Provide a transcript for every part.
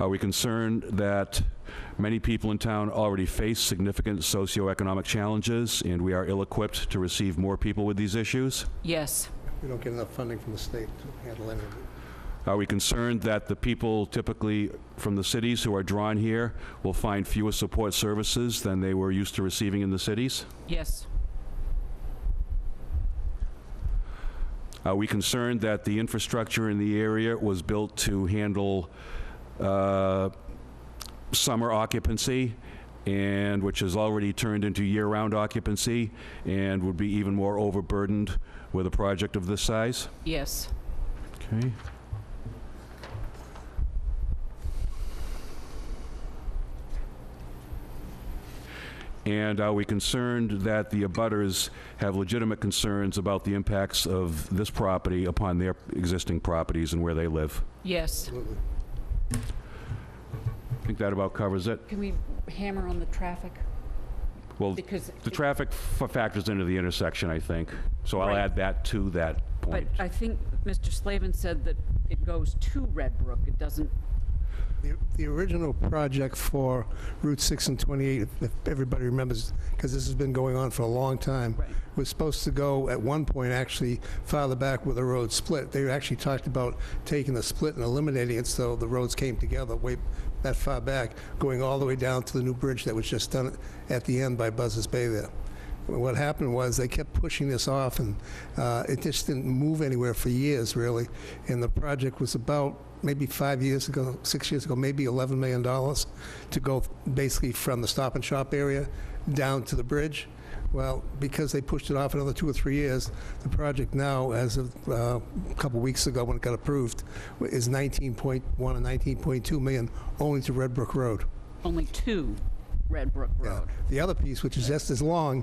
Are we concerned that many people in town already face significant socioeconomic challenges, and we are ill-equipped to receive more people with these issues? Yes, We don't get enough funding from the state to handle any of it. Are we concerned that the people typically from the cities who are drawn here will find fewer support services than they were used to receiving in the cities? yes, Are Uh, we concerned that the infrastructure in the area was built to handle uh, summer occupancy, and which has already turned into year-round occupancy, and would be even more overburdened with a project of this size? yes, Okay. And are we concerned that the abutters have legitimate concerns about the impacts of this property upon their existing properties and where they live? yes, Absolutely. I think that about covers it. Can we hammer on the traffic? Well, Because, the traffic f- factors into the intersection, I think, so I'll Right. add that to that but uh, point. I think Mr. Slavin said that it goes to Red Brook, it doesn't, The- The original project for Route 6 and 28, if- if everybody remembers, because this has been going on for a long time, Right. was supposed to go at one point actually farther back where the road split. They actually talked about taking the split and eliminating it so the roads came together way that far back, going all the way down to the new bridge that was just done at the end by Buzzards Bay there. What happened was they kept pushing this off and uh, it just didn't move anywhere for years really. And the project was about maybe five years ago, six years ago, maybe $11 million to go basically from the Stop and Shop area down to the bridge. Well, because they pushed it off another two or three years, the project now, as of uh, a couple weeks ago when it got approved, is 19.1 and 19.2 million only to Red Brook Road. only to Red Brook Yeah. Road. The other piece, which is just as long,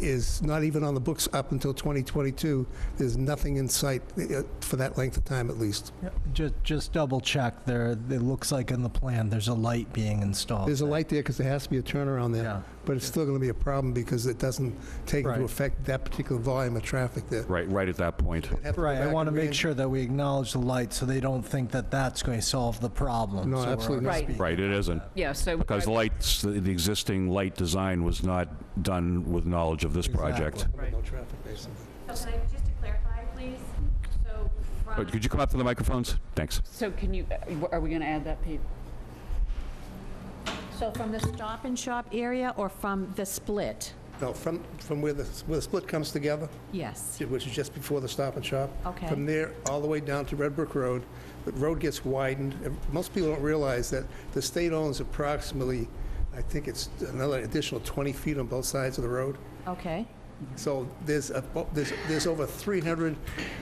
is not even on the books up until 2022. There's nothing in sight uh, for that length of time at least. Just, just double check there. It looks like in the plan, there's a light being installed. There's a there. light there because there has to be a turnaround there. Yeah. But it's still going to be a problem because it doesn't take into Right. effect that particular volume of traffic there. Right, right at that point. They'd have to go Right, I back want to and make rein- sure that we acknowledge the light so they don't think that that's going to solve the problem. No, So we're absolutely already not. Right, Right, it isn't. yeah, so. Because I- the lights, the the existing light design was not done with knowledge of this project. Exactly. Right. No traffic, basically. So can I, just to clarify, please, so from, But could you come up to the microphones? Thanks. So can you, uh, are we going to add that, Pete? so from the Stop and Shop area or from the split? No, from, from where the, where the split comes together, Yes. which is just before the Stop and Shop. Okay. From there, all the way down to Red Brook Road. The road gets widened. and Most people don't realize that the state owns approximately, I think it's another additional 20 feet on both sides of the road. Okay, So there's, a- there's, there's over 300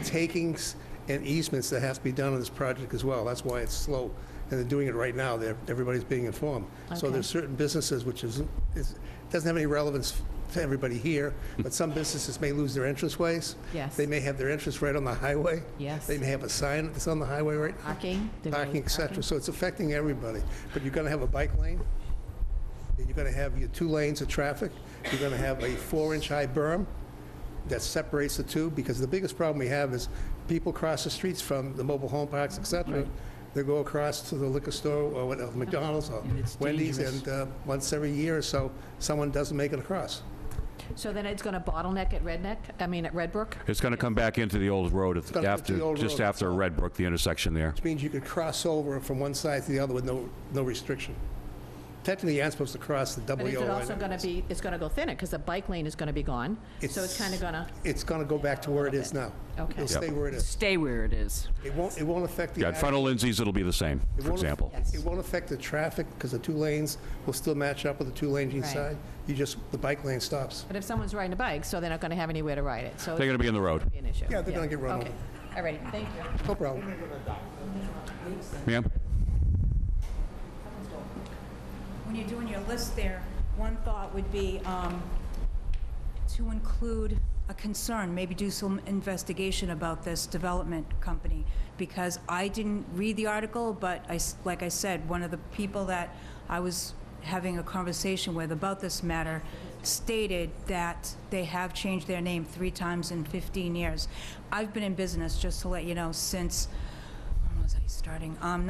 takings and easements that have to be done on this project as well. That's why it's slow. And they're doing it right now. They're, everybody's being informed. So Okay. there's certain businesses, which is, is, doesn't have any relevance to everybody here, but some businesses may lose their entrance ways. Yes. They may have their entrance right on the highway. Yes. They may have a sign that's on the highway right now. parking? the road Parking, et cetera. So it's affecting everybody. But you're gonna have a bike lane, and you're gonna have your two lanes of traffic, you're gonna have a four-inch high berm that separates the two, because the biggest problem we have is people cross the streets from the mobile home parks, et cetera. They go across to the liquor store or what- McDonald's or And it's Wendy's, dangerous. and uh, once every year or so, someone doesn't make it across. So then it's going to bottleneck at Red Neck, I mean, at Red Brook? It's going to come back into the old road at- gonna go to the after, old just road. after Red Brook, the intersection there. which means you could cross over from one side to the other with no, no restriction. Technically, you aren't supposed to cross the double But is yellow it line. also going to be, it's going to go thinner because the bike lane is going to be gone? So it's kind of going to, It's going to go back to where it is now. Okay. It'll stay where it is. Stay where it is. It won't, it won't affect the. Yeah, in front of Lindsay's, it'll be the same, it for won't- example. It won't affect the traffic because the two lanes will still match up with the two lanes each Right. side. You just, the bike lane stops. but if someone's riding a bike, so they're not going to have anywhere to ride it, so it's They're going going to be in the road. to be an issue. Yeah, they're gonna get run Okay, all right, thank you. No problem. Ma'am? when you're doing your list there, one thought would be um, to include a concern, maybe do some investigation about this development company, because I didn't read the article, but I s like I said, one of the people that I was having a conversation with about this matter stated that they have changed their name three times in 15 years. I've been in business, just to let you know, since, when was I starting? Um,